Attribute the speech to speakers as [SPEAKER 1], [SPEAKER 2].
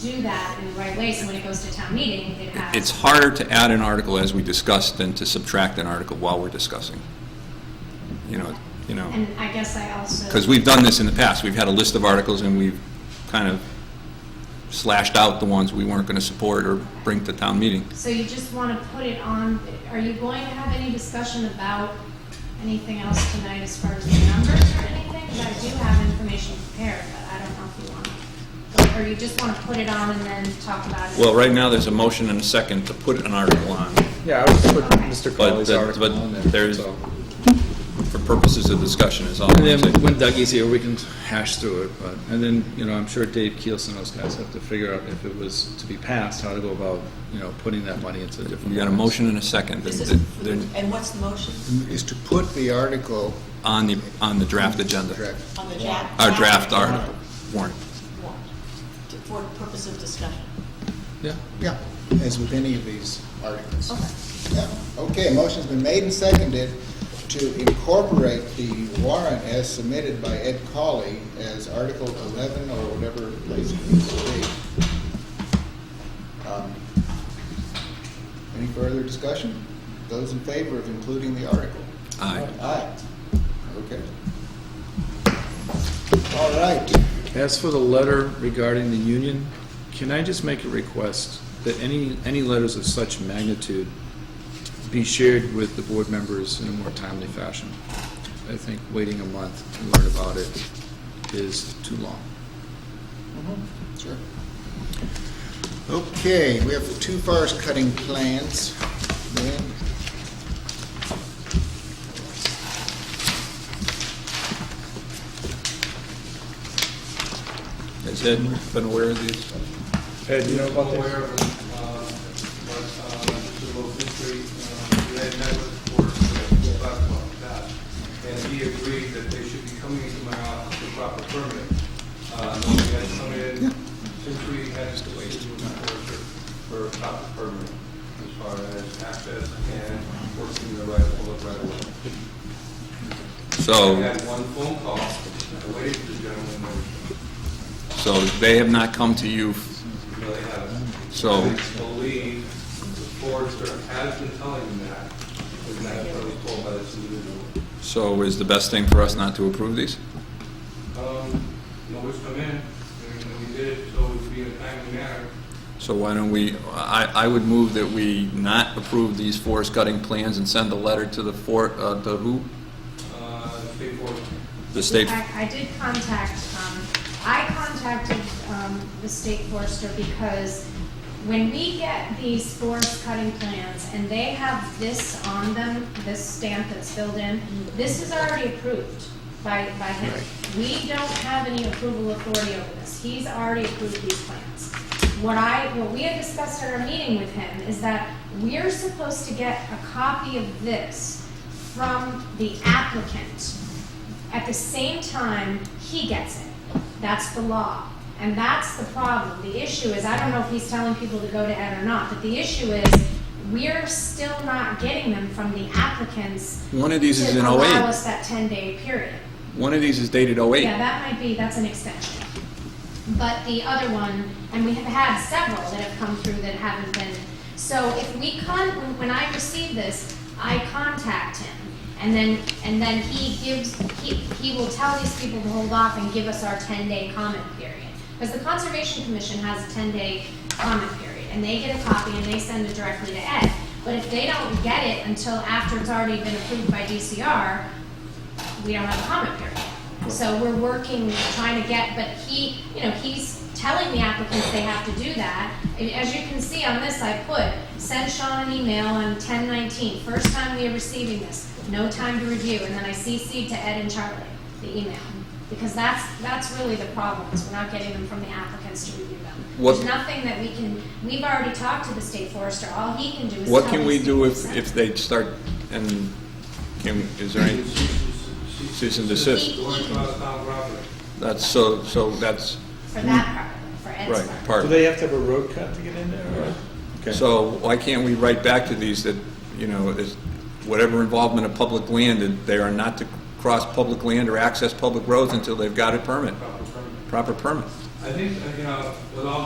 [SPEAKER 1] do that in the right way, so when it goes to town meeting, it has.
[SPEAKER 2] It's harder to add an article as we discuss than to subtract an article while we're discussing. You know, you know,
[SPEAKER 1] And I guess I also.
[SPEAKER 2] because we've done this in the past. We've had a list of articles and we've kind of slashed out the ones we weren't going to support or bring to town meeting.
[SPEAKER 1] So you just want to put it on, are you going to have any discussion about anything else tonight as far as the numbers or anything? 'Cause I do have information prepared, but I don't know if you want to. Or you just want to put it on and then talk about it?
[SPEAKER 2] Well, right now, there's a motion and a second to put an article on.
[SPEAKER 3] Yeah, I would just put
[SPEAKER 1] Okay.
[SPEAKER 3] Mr.
[SPEAKER 2] But
[SPEAKER 3] Crowley's
[SPEAKER 2] the-
[SPEAKER 3] article
[SPEAKER 2] but
[SPEAKER 3] on there.
[SPEAKER 2] there's-
[SPEAKER 3] so.
[SPEAKER 2] For purposes of discussion is all. I'm
[SPEAKER 3] And then
[SPEAKER 2] saying.
[SPEAKER 3] when Dougie's here, we can hash through it, but, and then, you know, I'm sure Dave Keels and those guys have to figure out if it was to be passed, how to go about, you know, putting that money into different.
[SPEAKER 2] We got a
[SPEAKER 3] lines.
[SPEAKER 2] motion and a second
[SPEAKER 4] This is-
[SPEAKER 2] They're- they're
[SPEAKER 4] And what's the motion
[SPEAKER 5] is to put the article
[SPEAKER 2] on the, on the draft agenda.
[SPEAKER 5] correct.
[SPEAKER 4] on the draft?
[SPEAKER 2] Our draft article warrant.
[SPEAKER 4] Warrant. To- For purpose of discussion.
[SPEAKER 3] Yeah.
[SPEAKER 5] Yeah, as with any of these articles.
[SPEAKER 4] Okay.
[SPEAKER 5] Yeah. Okay, a motion's been made and seconded to incorporate the warrant as submitted by Ed Colley as Article 11 or whatever place it needs to be. Um, Any further discussion? Those in favor of including the article?
[SPEAKER 2] Aye.
[SPEAKER 5] Aye. Okay. All right.
[SPEAKER 3] As for the letter regarding the union, can I just make a request that any, any letters of such magnitude be shared with the board members in a more timely fashion? I think waiting a month to learn about it is too long.
[SPEAKER 5] Sure. Okay, we have the two forest cutting plans. Lynn?
[SPEAKER 2] Has Ed been aware of these?
[SPEAKER 3] Ed, you know about
[SPEAKER 6] aware of, uh, what, uh, Mr. Lopez, uh, we had met with the board, we had talked about that. And he agreed that they should be coming into my office for proper permit. Uh, and we had come in, since we had to wait for, for proper permit as far as access and working the right, public right of way.
[SPEAKER 2] So.
[SPEAKER 6] We had one phone call, I waited for the gentleman, to
[SPEAKER 2] So they have not come to you,
[SPEAKER 6] really have.
[SPEAKER 2] so,
[SPEAKER 6] I believe the forester has been telling him that, and that's what I was told by this individual.
[SPEAKER 2] so is the best thing for us not to approve these?
[SPEAKER 6] Um, nobody's come in, and we did it, so it would be in a timely manner.
[SPEAKER 2] So why don't we, I, I would move that we not approve these forest cutting plans and send a letter to the for, uh, to who?
[SPEAKER 6] Uh, the state board,
[SPEAKER 2] The state,
[SPEAKER 1] I, I did contact, um, I contacted, um, the state forester because when we get these forest cutting plans and they have this on them, this stamp that's filled in, this is already approved by, by him. We don't have any approval authority over this. He's already approved these plans. What I, what we had discussed at our meeting with him is that we're supposed to get a copy of this from the applicant at the same time, he gets it. That's the law. And that's the problem. The issue is, I don't know if he's telling people to go to Ed or not, but the issue is, we're still not getting them from the applicants
[SPEAKER 2] one of these is
[SPEAKER 1] to
[SPEAKER 2] in
[SPEAKER 1] allow
[SPEAKER 2] 08.
[SPEAKER 1] us that ten-day period.
[SPEAKER 2] One of these is dated
[SPEAKER 1] Yeah,
[SPEAKER 2] 08.
[SPEAKER 1] that might be, that's an extension. But the other one, and we have had several that have come through that haven't been, so if we con, when- when I receive this, I contact him. And then, and then he gives, he, he will tell these people to hold off and give us our ten-day comment period. Because the Conservation Commission has a ten-day comment period, and they get a copy and they send it directly to Ed. But if they don't get it until after it's already been approved by DCR, we don't have a comment period. So we're working, trying to get, but he, you know, he's telling the applicants they have to do that. And as you can see on this, I put, send Sean an email on ten nineteen, first time we are receiving this, no time to review, and then I CC'd to Ed and Charlie, the email. Because that's, that's really the problem, is we're not getting them from the applicants to review them.
[SPEAKER 2] What-
[SPEAKER 1] There's nothing that we can, we've already talked to the state forester, all he can do is
[SPEAKER 2] What
[SPEAKER 1] tell
[SPEAKER 2] can
[SPEAKER 1] these
[SPEAKER 2] we
[SPEAKER 1] people
[SPEAKER 2] do if,
[SPEAKER 1] to
[SPEAKER 2] if
[SPEAKER 1] send.
[SPEAKER 2] they start, and can, is there any, cease and desist?
[SPEAKER 6] Going across town property.
[SPEAKER 2] That's so, so that's,
[SPEAKER 1] For that part, for Ed's part.
[SPEAKER 2] right, part.
[SPEAKER 7] Do they have to have a road cut to get in there, or?
[SPEAKER 2] So why can't we write back to these that, you know, is whatever involvement of public land, that they are not to cross public land or access public roads until they've got a permit, proper permit?
[SPEAKER 6] I think, uh, you know, with all